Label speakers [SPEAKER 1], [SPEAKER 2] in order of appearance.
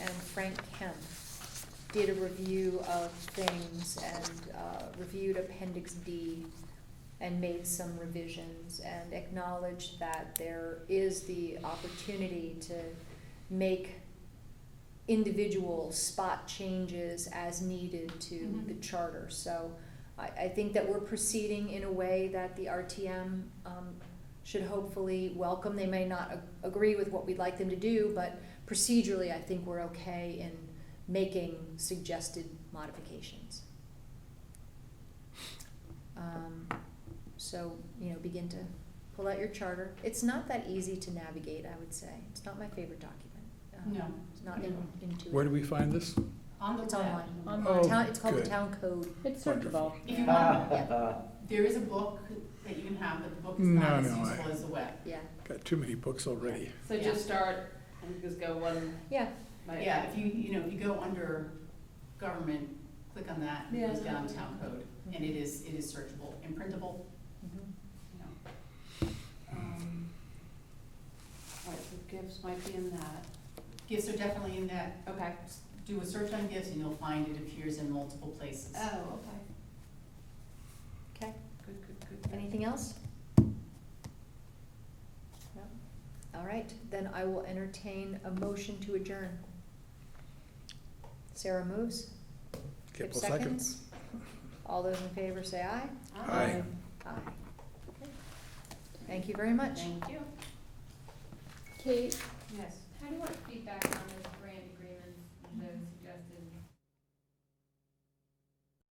[SPEAKER 1] Frank Kemp did a review of things and uh, reviewed Appendix D and made some revisions and acknowledged that there is the opportunity to make individual spot changes as needed to
[SPEAKER 2] Mhm.
[SPEAKER 1] the charter. So I, I think that we're proceeding in a way that the RTM um, should hopefully welcome. They may not a- agree with what we'd like them to do, but procedurally, I think we're okay in making suggested modifications. Um, so, you know, begin to pull out your charter. It's not that easy to navigate, I would say. It's not my favorite document. Um,
[SPEAKER 2] No.
[SPEAKER 1] It's not in- intuitive.
[SPEAKER 3] Where do we find this?
[SPEAKER 2] On the
[SPEAKER 1] It's
[SPEAKER 2] web.
[SPEAKER 1] online.
[SPEAKER 3] Oh,
[SPEAKER 1] Town, it's called the
[SPEAKER 3] good.
[SPEAKER 1] town code.
[SPEAKER 4] It's
[SPEAKER 3] Wonderful.
[SPEAKER 4] searchable.
[SPEAKER 2] If you want,
[SPEAKER 1] Yeah.
[SPEAKER 2] there is a book that you can have, but the book is not
[SPEAKER 3] No,
[SPEAKER 2] as
[SPEAKER 3] no, I-
[SPEAKER 2] useful as the web.
[SPEAKER 1] Yeah,
[SPEAKER 3] Got too many books already.
[SPEAKER 5] So
[SPEAKER 2] Yeah.
[SPEAKER 5] just start, and just go one
[SPEAKER 1] yeah.
[SPEAKER 5] by.
[SPEAKER 2] Yeah, if you, you know, if you go under government, click on that, and it goes
[SPEAKER 5] Yeah.
[SPEAKER 2] down to town code, and it is, it is searchable and printable,
[SPEAKER 1] Mhm.
[SPEAKER 2] you know.
[SPEAKER 5] Um, All right, so gifts might be in that,
[SPEAKER 2] Gifts are definitely in that,
[SPEAKER 5] okay.
[SPEAKER 2] do a search on gifts and you'll find it appears in multiple places.
[SPEAKER 5] Oh, okay.
[SPEAKER 1] Okay,
[SPEAKER 5] Good, good, good, good.
[SPEAKER 1] anything else? No? All right, then I will entertain a motion to adjourn. Sarah moves. Kip
[SPEAKER 3] Kipple seconds.
[SPEAKER 1] All those in favor say aye.
[SPEAKER 3] Aye.
[SPEAKER 1] Aye. Okay. Thank you very much.
[SPEAKER 2] Thank you.
[SPEAKER 4] Kate,
[SPEAKER 5] Yes.
[SPEAKER 6] How do you want feedback on the